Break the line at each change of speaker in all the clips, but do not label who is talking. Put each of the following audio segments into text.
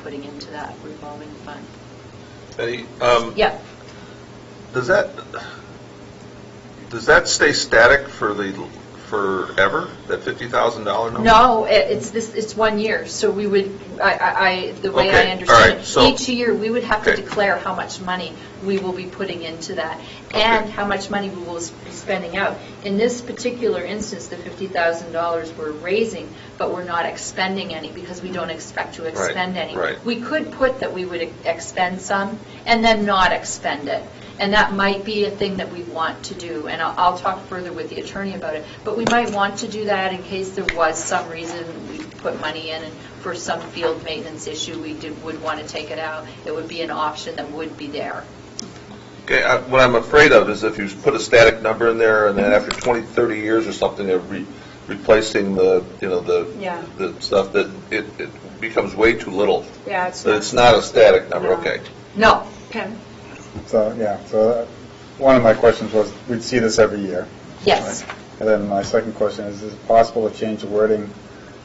putting into that revolving fund.
Betty, um,
Yeah,
does that, does that stay static for the, forever, that $50,000 number?
no, i- it's this, it's one year, so we would, I- I, I, the way
Okay, all
I understand
right,
it,
so-
each year, we would have to
Okay.
declare how much money we will be putting into that,
Okay.
and how much money we will s- be spending out. In this particular instance, the $50,000 we're raising, but we're not expending any, because we don't expect to
Right,
expend any.
right.
We could put that we would ex- expend some, and then not expend it. And that might be a thing that we want to do, and I'll, I'll talk further with the attorney about it. But we might want to do that in case there was some reason we put money in, and for some field maintenance issue, we did, would want to take it out. It would be an option that would be there.
Okay, I- what I'm afraid of is if you put a static number in there, and then after 20, 30 years or something of re- replacing the, you know,
Yeah.
the, the stuff, that it it becomes way too little.
Yeah,
So it's not a static number, okay.
No.
So, yeah, so uh, one of my questions was, we'd see this every year.
Yes.
right? And then my second question is, is it possible to change the wording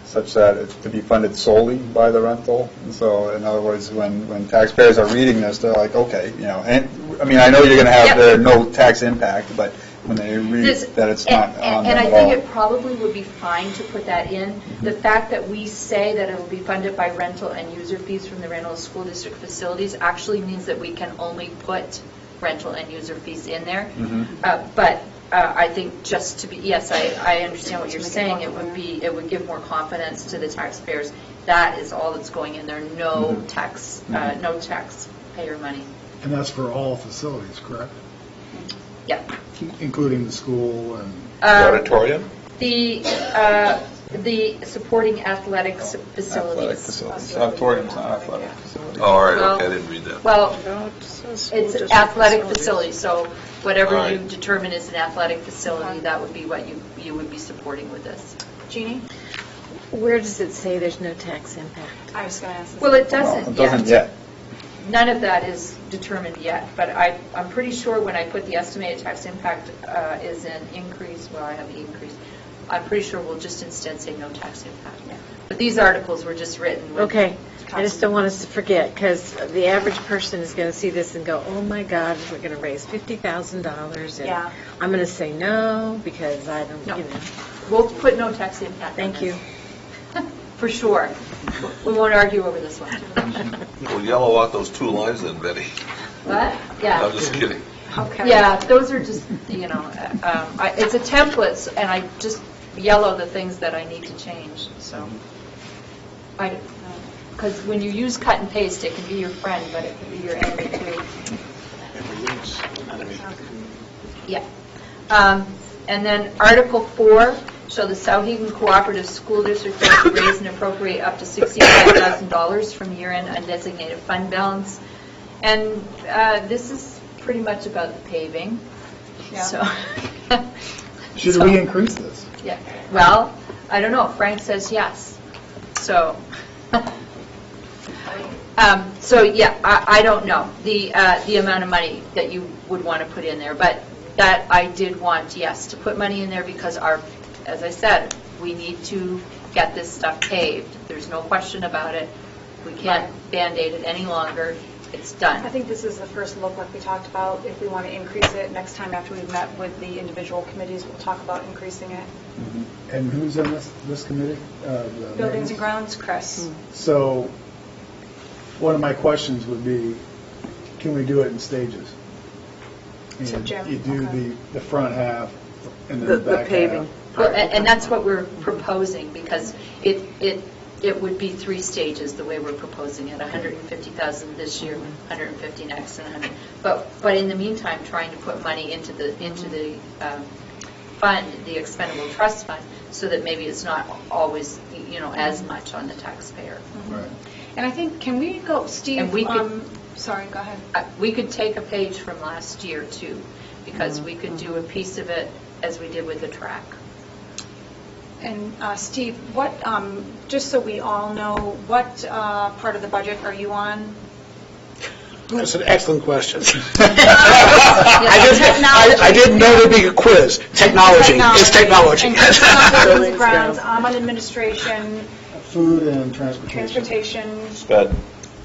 such that it's to be funded solely by the rental? And so, in other words, when, when taxpayers are reading this, they're like, okay, you know, and, I mean, I know you're going to
Yep.
have the no tax impact, but when they read
This-
that it's
and-
not
and-
on them
And I
at
think it
all.
probably would be fine to put that in. The fact that we say that it will be funded by rental and user fees from the Randall School District facilities actually means that we can only put rental and user fees in there.
Mhm.
Uh, But uh, I think just to be, yes, I, I understand what you're saying. It would be, it would give more confidence to the taxpayers. That is all that's going in there, no
Mhm.
tax, uh,
Mhm.
no taxpayer money.
And that's for all facilities, correct?
Yeah.
Including the school and,
Um,
Auditorium?
The, uh, the supporting athletic s-
Athletic
facilities.
facilities. Auditorium's not athletic facility.
Oh, All right, okay, I didn't read that.
Well,
It's
it's athletic facility, so whatever you
Alright.
determine is an athletic facility, that would be what you, you would be supporting with this.
Jeannie?
Where does it say there's no tax impact?
I was going to ask.
Well, it
Well,
doesn't
It doesn't
yet.
yet.
None of that is determined yet, but I, I'm pretty sure when I put the estimated tax impact uh, is an increase, well, I have the increase, I'm pretty sure we'll just instead say no tax impact. But these articles were just written with
Okay, I just don't want us to forget, because the average person is going to see this and go, oh my God, we're going to raise $50,000, and
Yeah.
I'm going to say no, because I don't,
No.
you know.
We'll put no tax impact. on
Thank
this. For sure. We won't argue over this one.
Well, yellow out those two lines then, Betty.
What?
I'm
Yeah.
just kidding.
Okay.
Yeah, those are just, you know, uh, um, I- it's a template, s- and I just yellow the things that I need to change, so. I, because when you use cut and paste, it can be your friend, but it can be your enemy too. Yeah. Um, And then Article 4, shall the Souhegan Cooperative School District vote to raise and appropriate up to $65,000 from year-end undesignated fund balance? And uh, this is pretty much about the paving, so.
should
So-
we increase this?
Yeah, well, I don't know, Frank says yes, so. Um, So, yeah, I, I don't know, the, uh, the amount of money that you would want to put in there, but that I did want, yes, to put money in there because our, as I said, we need to get this stuff paved, there's no question about it, we can't Band-Aid it any longer, it's done.
I think this is the first look, like we talked about, if we want to increase it, next time after we've met with the individual committees, we'll talk about increasing it.
And who's on this, this committee? Uh, the-
Buildings and grounds, Chris?
So, one of my questions would be, can we do it in stages?
So,
And
Jim,
You do
okay.
the, the front half and then the
The- the
back half.
paving.
Well, a- And that's what we're proposing, because it, it, it would be three stages, the way we're proposing it, 150,000 this year, 150 next, and 100, but, but in the meantime, trying to put money into the, into the um, fund, the expendable trust fund, so that maybe it's not always, you know, as much on the taxpayer.
Right.
Mm-hmm. And I think, can we go,
And
Steve,
we could-
um, sorry, go ahead.
Uh, We could take a page from last year, too, because we could do a piece of it as we did with the track.
And uh, Steve, what, um, just so we all know, what uh, part of the budget are you on?
That's an excellent question. I didn't, I- I didn't know there'd be a quiz. Technology, it's technology.
And Chris is on buildings and grounds, I'm on administration,
Food and transportation.
transportation,
Sped.